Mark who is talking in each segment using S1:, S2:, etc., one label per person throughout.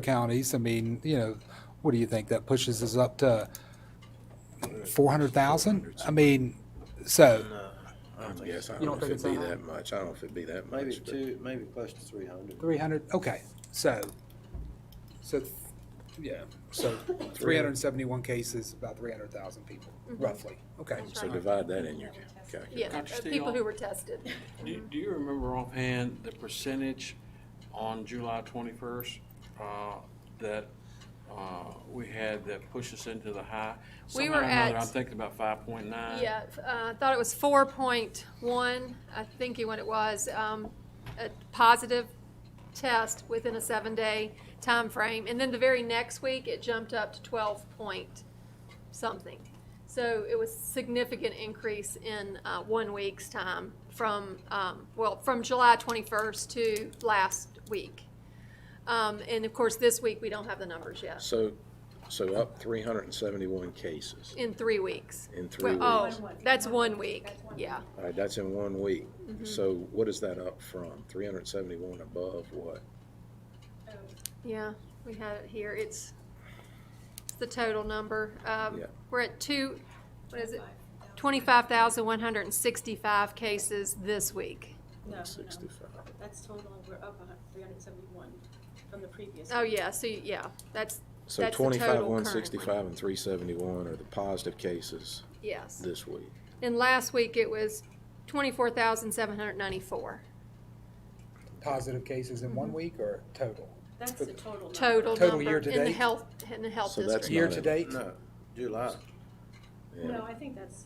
S1: counties, I mean, you know, what do you think? That pushes us up to four hundred thousand? I mean, so,
S2: I don't think, I
S1: You don't
S2: don't know if
S1: think it's
S2: it'd be
S1: that
S2: that much. I don't know if it'd be that much.
S3: Maybe
S2: but-
S3: two, maybe close to three hundred.
S1: three hundred, okay, so, so, yeah, so three hundred and seventy-one cases, about three hundred thousand people, roughly, okay.
S2: So divide that in your ca- calculus.
S4: Yeah,
S5: Dr.
S4: uh,
S5: Steele?
S4: people who were tested.
S5: Do, do you remember offhand the percentage on July twenty-first, uh, that, uh, we had that pushed us into the high?
S4: We
S5: Somehow or
S4: were
S5: another,
S4: at-
S5: I'm thinking about five point nine.
S4: Yeah, f- uh, I thought it was four point one, I think you what it was, um, a positive test within a seven-day time frame, And then the very next week, it jumped up to twelve point something. So it was significant increase in, uh, one week's time from, um, well, from July twenty-first to last week. Um, and of course, this week, we don't have the numbers yet.
S2: So, so up three hundred and seventy-one cases.
S4: In three weeks.
S2: In three
S4: Well,
S2: weeks.
S4: Oh, that's one week, yeah.
S2: All right, that's in one week.
S4: Mm-hmm.
S2: So what is that up from? Three hundred and seventy-one above what?
S4: Yeah, we had it here, it's, it's the total number. Um,
S2: Yeah.
S4: We're at two, what is it? Twenty-five thousand one hundred and sixty-five cases this week.
S6: No, no,
S2: Sixty-five.
S6: that's total, we're up three hundred and seventy-one from the previous.
S4: Oh, yeah, so, you- yeah, that's,
S2: So
S4: that's the total
S2: twenty-five, one
S4: currently.
S2: sixty-five and three seventy-one are the positive cases
S4: Yes,
S2: this week.
S4: and last week it was twenty-four thousand seven hundred ninety-four,
S1: Positive cases in one week or total?
S6: That's the total. number.
S4: total
S1: Total
S4: number
S1: year to
S4: in the
S1: date?
S4: health, in the health
S2: So that's
S4: district.
S2: not
S1: Year to
S2: in-
S1: date?
S3: No, July.
S2: yeah.
S6: No, I think that's.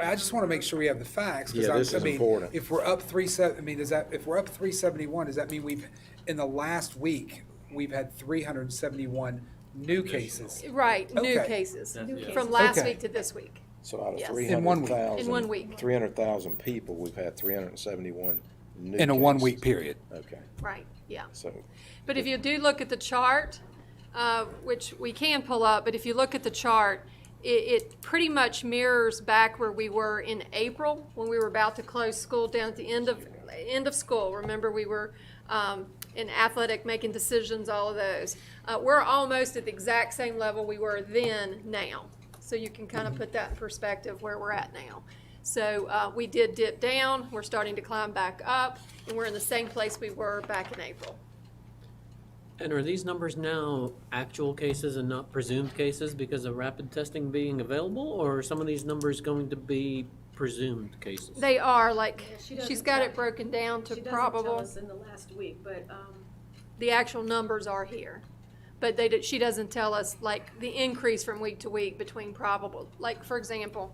S1: I just want to make sure we have the facts. 'cause
S2: Yeah,
S1: I'm-
S2: this
S1: I
S2: is
S1: mean,
S2: important.
S1: If we're up three seven, I mean, does that, if we're up three seventy-one, does that mean we've, in the last week, we've had three hundred and seventy-one new cases?
S4: Right, new
S1: Okay.
S4: cases,
S6: yeah.
S4: from last
S1: Okay.
S4: week to this week,
S2: So out of
S4: Yes.
S2: three
S4: In
S1: one
S2: hundred
S1: week.
S2: thousand.
S4: In one week.
S2: Three hundred thousand people, we've had three hundred and seventy-one new
S1: In a one-week
S2: cases.
S1: period.
S2: Okay,
S4: right, yeah.
S2: so
S4: But if you do look at the chart, uh, which we can pull up, but if you look at the chart, it, it pretty much mirrors back where we were in April, when we were about to close school down at the end of, end of school. Remember, we were um, in athletic, making decisions, all of those. Uh, We're almost at the exact same level we were then now. So you can kind of put that in perspective where we're at now. So uh, we did dip down, we're starting to climb back up, and we're in the same place we were back in April.
S7: And are these numbers now actual cases and not presumed cases because of rapid testing being available, or are some of these numbers going to be presumed cases?
S4: They are, like,
S6: Yeah, she
S4: she's
S6: doesn't
S4: got
S6: tell-
S4: it broken down to
S6: She doesn't tell
S4: probable,
S6: us in the last week, but, um,
S4: the actual numbers are here. But they, did- she doesn't tell us, like, the increase from week to week between probable. Like, for example,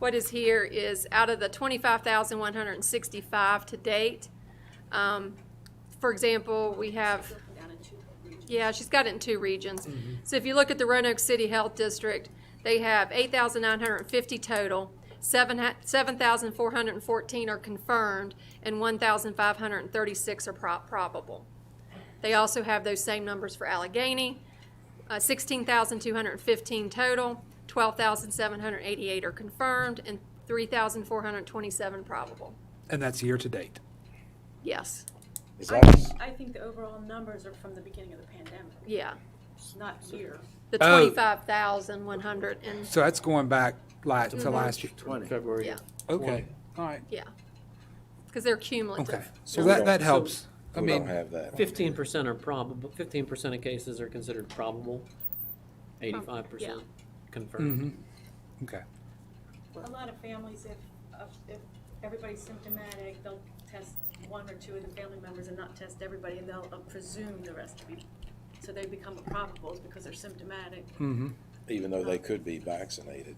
S4: what is here is out of the twenty-five thousand one hundred and sixty-five to date, um, for example, we have
S6: broken down in two regions.
S4: yeah, she's got it in two regions. So if you look at the Roanoke City Health District, they have eight thousand nine hundred and fifty total. Seven, seven thousand four hundred and fourteen are confirmed and one thousand five hundred and thirty-six are prob- probable. They also have those same numbers for Allegheny, uh, sixteen thousand two hundred and fifteen total, twelve thousand seven hundred and eighty-eight are confirmed and three thousand four hundred and twenty-seven probable.
S1: And that's year to date.
S4: Yes,
S2: is
S6: I
S2: that?
S6: think- I think the overall numbers are from the beginning of the pandemic,
S4: yeah.
S6: not here.
S4: The
S1: Oh.
S4: twenty-five thousand one hundred and,
S1: So that's going back like to last year.
S3: Twenty.
S5: February.
S4: yeah.
S1: Okay, all right,
S4: Yeah, because they're
S1: okay.
S4: cumulative.
S1: So
S2: we
S1: that,
S2: don't-
S1: that
S2: so-
S1: helps. I
S2: We don't
S1: mean,
S2: have that.
S7: Fifteen percent are probable, fifteen percent of cases are considered probable, eighty-five percent
S1: Mm-hmm.
S7: confirmed.
S1: okay.
S6: A lot of families, if, if- if everybody's symptomatic, they'll test one or two of the family members and not test everybody, and they'll uh, presume the rest to be, so they become probables because they're symptomatic.
S2: even though they could be vaccinated.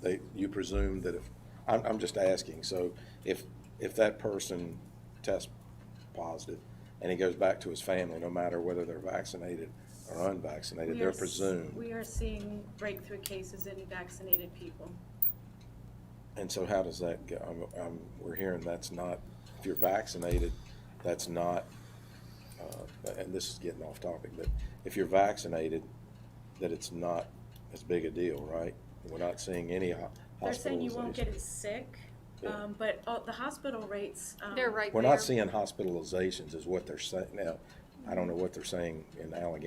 S2: They, you presume that if, I'm, I'm just asking, so if, if that person tests positive and he goes back to his family, no matter whether they're vaccinated or unvaccinated,
S6: We
S2: they're
S6: are s-
S2: presumed.
S6: We are seeing breakthrough cases in vaccinated people.
S2: And so how does that go? I'm, I'm, we're hearing that's not, if you're vaccinated, that's not, uh, and this is getting off topic, but if you're vaccinated, that it's not as big a deal, right? We're not seeing any ho- hospitalizations.
S6: They're saying you won't get it sick, um, but all- the hospital rates. um,
S4: They're right there.
S2: We're not seeing hospitalizations is what they're saying. Now, I don't know what they're saying in Allegheny.